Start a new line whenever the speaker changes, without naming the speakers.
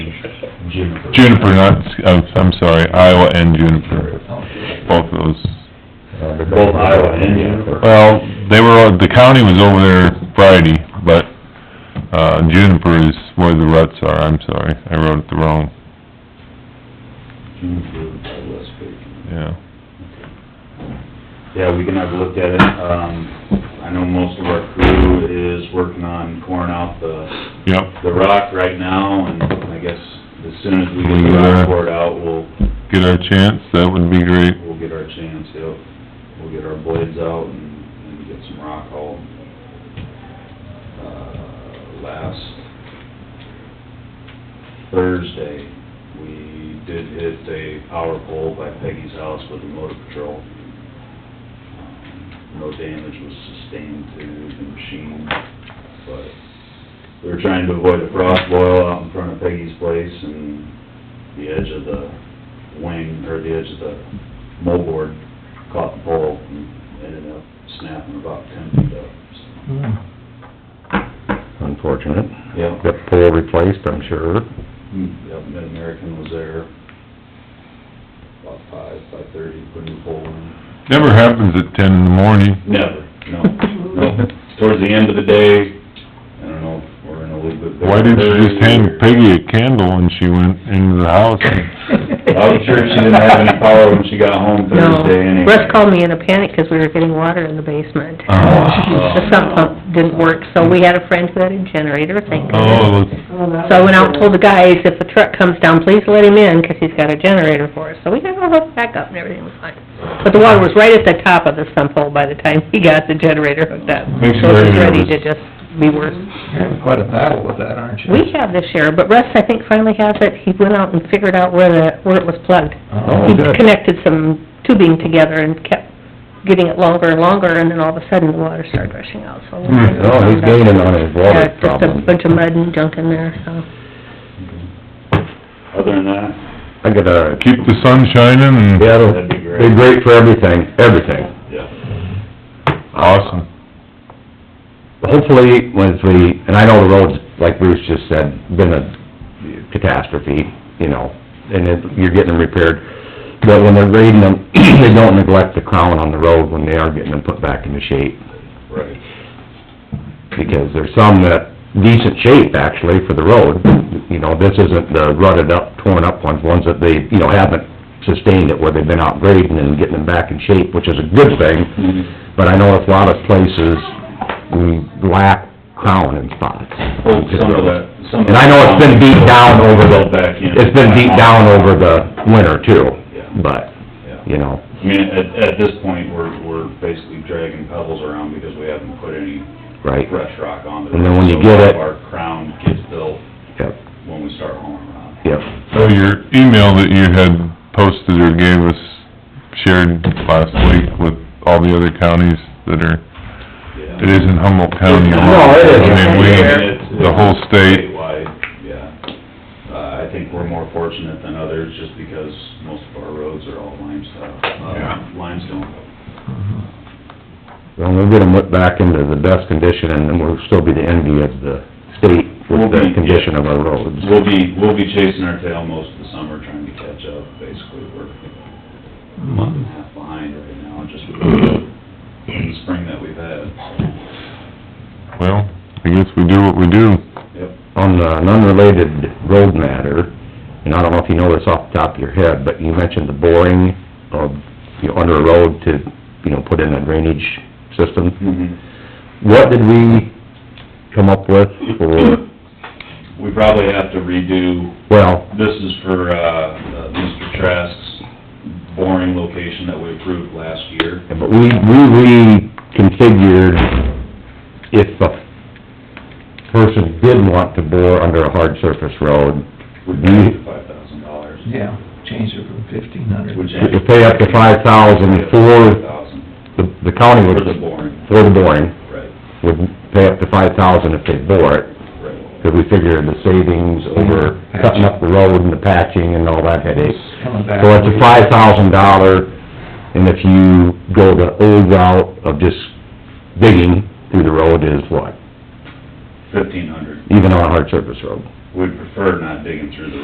Juniper.
Juniper, not, oh, I'm sorry, Iowa and Juniper, both of those.
Uh, Both Iowa and Juniper.
Well, they were, uh, the county was over there Friday, but, uh, Juniper is where the ruts are, I'm sorry, I wrote it the wrong,
Juniper, uh, West Bacon.
yeah.
Yeah, we can have a look at it. Um, I know most of our crew is working on coring out the,
Yep,
the rock right now, and I guess as soon as we get the
We, uh,
rock poured out, we'll,
get our chance, that would be great.
we'll get our chance, yep. We'll get our blades out and, and get some rock hauled. Uh, last Thursday, we did hit a power pole by Peggy's house with a motor patrol. Um, No damage was sustained to the machine, but we were trying to avoid a frost boil out in front of Peggy's place and the edge of the wing, or the edge of the moldboard caught the pole and ended up snapping about ten feet up. so.
Unfortunate.
Yep.
Got the pole replaced, I'm sure.
Yep, Mid-American was there about five, five-thirty, put in the pole in.
Never happens at ten in the morning,
Never, no, no. Towards the end of the day, I don't know, we're in a little bit...
why didn't you just hand Peggy a candle when she went into the house?
I was sure she didn't have any power when she got home
No,
Thursday anyway.
Russ called me in a panic because we were getting water in the basement.
Oh.
The sump pump didn't work, so we had a friend who had a generator, thank goodness.
Oh,
So I went out and told the guys, if the truck comes down, please let him in, because he's got a generator for us. So we got all hooked back up and everything was fine. But the water was right at the top of the sump hole by the time he got the generator hooked up.
Makes you
So it was
very
ready to
nervous.
just be worse.
Having quite a battle with that, aren't you?
We have this year, but Russ, I think, finally has it. He went out and figured out where the, where it was plugged.
Oh,
he
good.
connected some tubing together and kept getting it longer and longer, and then all of a sudden, the water started rushing out, so...
Hmm.
Oh, he's gaining on his
Yeah,
water
just a
problem.
bunch of mud and junk in there, so...
Other than that,
I got a,
keep the sun shining and...
yeah, it'll
that'd be
be
great,
great for everything, everything.
yeah.
Awesome.
Hopefully, once we, and I know the road's, like Bruce just said, been a catastrophe, you know, and it, you're getting them repaired. But when they're grading them, they don't neglect the crown on the road when they are getting them put back into shape.
Right.
because there's some that decent shape actually for the road. You know, this isn't the rutted up, torn up ones, ones that they, you know, haven't sustained it where they've been out grading and getting them back in shape, which is a good thing. But I know a lot of places, we lack crown in spots.
Well, some of that, some of
And I know it's been beat down over the,
Back in.
it's been beat down over the winter too,
Yeah,
but,
yeah.
you know,
I mean, at, at this point, we're, we're basically dragging pebbles around because we haven't put any
right?
fresh rock on the road.
And then when you
So
get it-
Our crown gets built
Yep,
when we start hauling rock.
yep.
So your email that you had posted or gave us, shared last week with all the other counties that are, it
Yeah.
isn't Humboldt County. alone.
No, it isn't.
I mean,
It's-
we, the whole state,
Statewide, yeah. Uh, I think we're more fortunate than others just because most of our roads are all limestone,
Yeah.
uh, limestone.
Well, we'll get them put back into the best condition, and then we'll still be the envy of the state with
We'll be,
the condition of our roads.
We'll be, we'll be chasing our tail most of the summer trying to catch up, basically, we're a month and a half behind right now, just with the spring that we've had.
well, I guess we do what we do.
Yep,
On uh, an unrelated road matter, and I don't know if you know this off the top of your head, but you mentioned the boring of, you know, under a road to, you know, put in a drainage system.
Mm-hmm.
What did we come up with for,
we probably have to redo,
well,
this is for, uh, uh, Mr. Trask's boring location that we approved last year.
but we, we reconfigured if a person did want to bore under a hard surface road,
We paid the five thousand dollars.
Yeah, changed it from fifteen hundred.
to pay up to five thousand for, the the county
For
would,
the boring,
for the boring,
right,
would pay up to five thousand if they bore it,
right.
because we figured the savings over cutting up the road and the patching and all that headache.
Coming back.
So it's a five thousand dollar, and if you go the old route of just digging through the road is what?
Fifteen hundred,
Even on a hard surface road.
we'd prefer not digging through the